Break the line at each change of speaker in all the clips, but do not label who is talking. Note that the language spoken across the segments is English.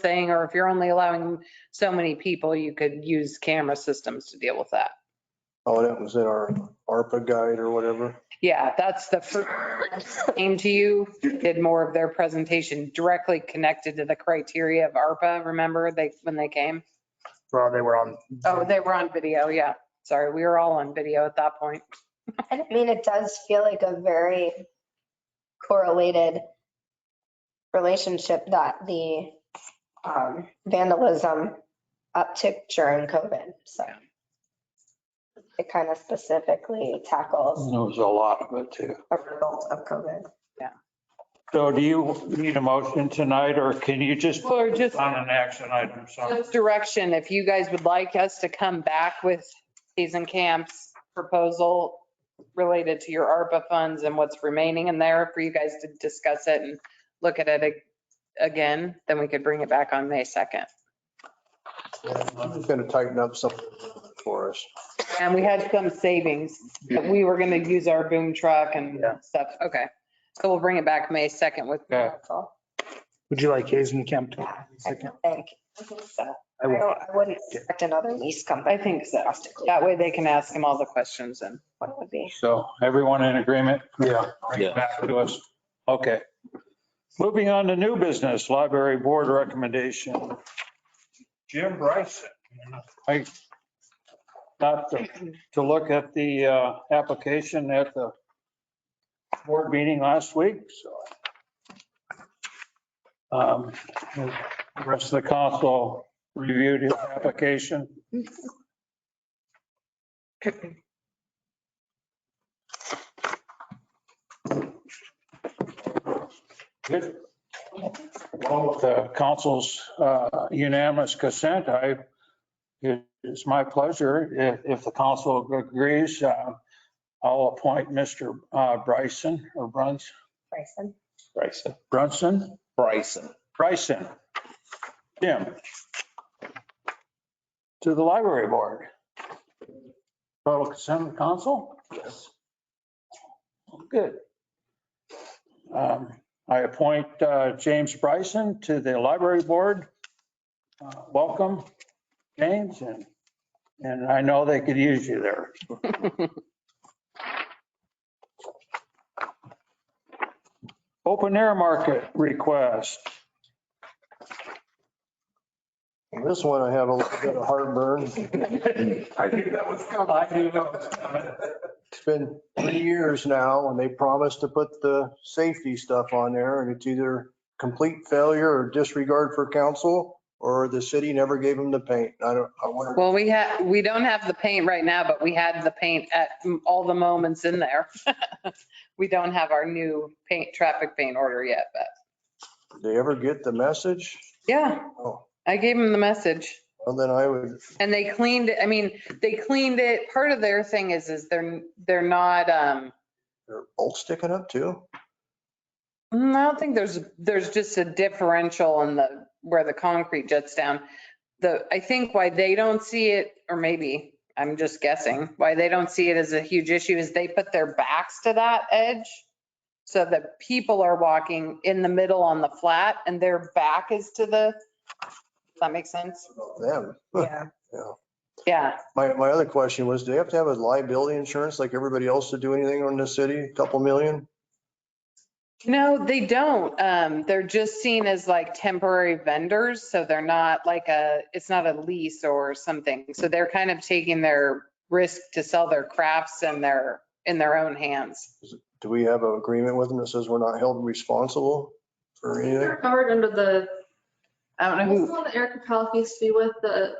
thing, or if you're only allowing so many people, you could use camera systems to deal with that.
Oh, that was in our ARPA guide or whatever.
Yeah, that's the first came to you, did more of their presentation directly connected to the criteria of ARPA, remember they, when they came?
Well, they were on,
Oh, they were on video, yeah. Sorry, we were all on video at that point.
And I mean, it does feel like a very correlated relationship that the um, vandalism uptick during COVID. So it kind of specifically tackles
There was a lot of it too.
a result of COVID.
So do you need a motion tonight or can you just put
Or just,
on an action item? something?
just direction, if you guys would like us to come back with season camps proposal related to your ARPA funds and what's remaining in there for you guys to discuss it and look at it ag- again, then we could bring it back on May 2nd.
It's going to tighten up something for us.
And we had some savings that we were going to use our boom truck and
Yeah.
stuff. Okay. So we'll bring it back May 2nd with,
Yeah.
Helpful.
would you like Hazen Camp? to-
I
Second.
think.
I
I
will.
don't- I wouldn't expect another lease
I
company.
think so. That way they can ask him all the questions and.
What would be?
So everyone in agreement?
Yeah.
Bring it back to us. Okay. Moving on to new business, library board recommendation. Jim Bryson. I got to, to look at the uh, application at the board meeting last week, so. um, The rest of the council reviewed his application. Good. Well, with the council's uh, unanimous consent, I, it's my pleasure, if, if the council agrees, uh, I'll appoint Mr. uh, Bryson or Bruns,
Bryson?
Bryson.
Brunson,
Bryson.
Bryson, Jim, to the library board. Total consent of the council? Yes. Good. Um, I appoint uh, James Bryson to the library board. Uh, Welcome, James, and, and I know they could use you there. Open air market request.
And This one, I have a little bit of heartburn.
I knew that was coming. I knew that was coming.
It's been three years now and they promised to put the safety stuff on there and it's either complete failure or disregard for council or the city never gave them the paint. I don't, I wonder.
Well, we had, we don't have the paint right now, but we had the paint at all the moments in there. We don't have our new paint, traffic paint order yet, but
Did they ever get the message?
yeah,
Oh,
I gave him the message.
well, then I would,
And they cleaned it, I mean, they cleaned it, part of their thing is, is they're, they're not, um,
they're both sticking up too.
mm, I don't think there's, there's just a differential in the, where the concrete jets down. The, I think why they don't see it, or maybe, I'm just guessing, why they don't see it as a huge issue is they put their backs to that edge so that people are walking in the middle on the flat and their back is to the, does that make sense?
Them.
Yeah.
Yeah,
My, my other question was, do they have to have a liability insurance like everybody else to do anything on the city? A Couple million?
No, they don't. Um, they're just seen as like temporary vendors, so they're not like a, it's not a lease or something. So they're kind of taking their risk to sell their crafts and their, in their own hands.
Do we have an agreement with them that says we're not held responsible for anything?
They're covered under the,
I don't know
this
who,
one that Erica Palick used to be with, the,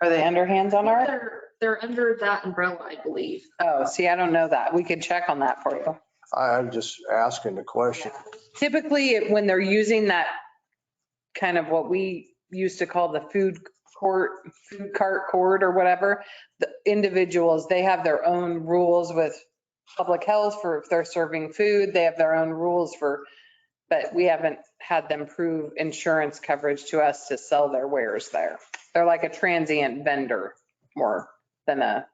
are they underhands on our?
they're, they're under that umbrella, I believe.
Oh, see, I don't know that. We could check on that for you.
I- I'm just asking the question.
Typically, it- when they're using that kind of what we used to call the food court, food cart court or whatever, the individuals, they have their own rules with public health for if they're serving food, they have their own rules for, but we haven't had them prove insurance coverage to us to sell their wares there. They're like a transient vendor more than a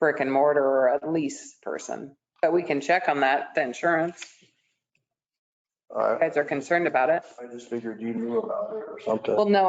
brick and mortar or a lease person. But we can check on that, the insurance.
I
You guys are concerned about it.
I just figured you knew about it or something.
Well, no,